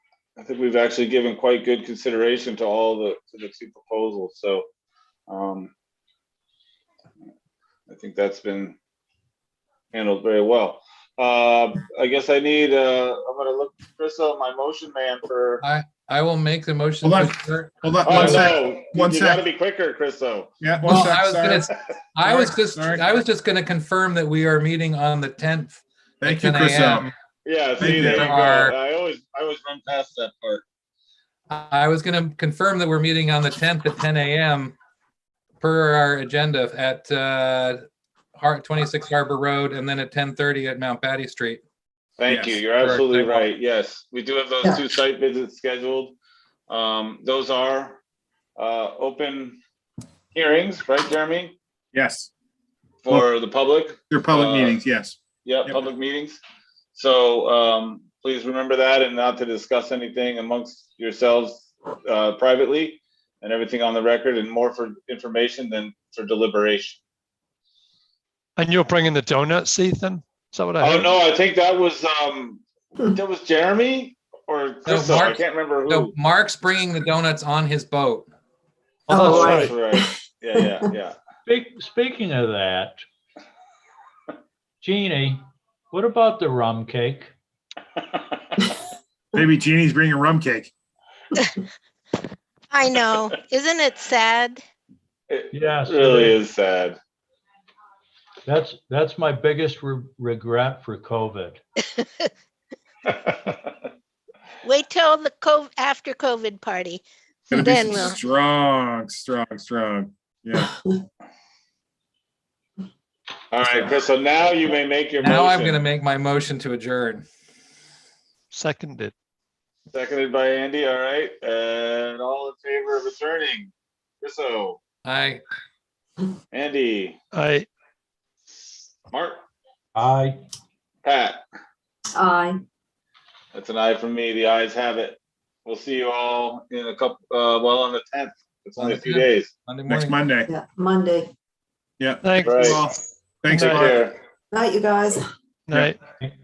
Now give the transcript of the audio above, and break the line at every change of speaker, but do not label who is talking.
I think we've actually given quite good consideration to all the, to the two proposals, so. um, I think that's been handled very well. Uh, I guess I need, uh, I'm gonna look, Krista, my motion man for.
I will make the motion.
Hold on.
to adjourn.
Hold on,
Oh,
one sec.
no,
one
You gotta
sec.
be quicker, Chriso.
Yeah, one
Well,
sec,
I was
sorry.
gonna, I was
Sorry,
just,
sorry.
I was just gonna confirm that we are meeting on the tenth.
Thank you,
10
Chris.
a.m.
um,
Yeah,
Thank
see,
you.
there you go.
Our-
I always, I always run past that part.
I was gonna confirm that we're meeting on the tenth at ten AM per our agenda at uh, Har- twenty-six Harbor Road and then at ten thirty at Mount Patty Street.
Thank you.
Yes,
You're absolutely
Thank you.
right. Yes, we do have those two site visits scheduled. Um, those are, uh, open hearings, right, Jeremy?
Yes,
For the public?
your public
Uh,
meetings, yes.
Yeah,
Yep.
public meetings. So, um, please remember that and not to discuss anything amongst yourselves, uh, privately and everything on the record and more for information than for deliberation.
And you're bringing the donuts, Ethan? Is that what I
Oh
heard?
no, I think that was um, that was Jeremy or Chris. I
Mark-
can't remember who.
So Mark's bringing the donuts on his boat.
Oh,
That's
that's right.
right. Yeah, yeah, yeah.
Speak- Speaking of that, Jeannie, what about the rum cake?
Maybe Jeannie's bringing rum cake.
I know. Isn't it sad?
It
Yes. it
really
is.
is sad.
That's, that's my biggest re- regret for COVID.
Wait till the COVID, after COVID party.
Gonna be
Then
some
we'll-
strong, strong, strong. Yeah,
All right, Chris. So now you may make your
Now I'm
motion.
gonna make my motion to adjourn.
Seconded.
Seconded by Andy. All right, and all in favor of returning. Chriso,
I,
Andy,
I,
Mark,
I,
Pat.
Aye.
That's an eye from me. The eyes have it. We'll see you all in a couple. Uh, well, on the tenth. It's only a few days.
Monday
next
morning.
Monday.
Yeah, Monday.
Yeah.
thanks.
Right.
Well, Thanks,
Take
Mark.
care.
Night, you guys.
Night.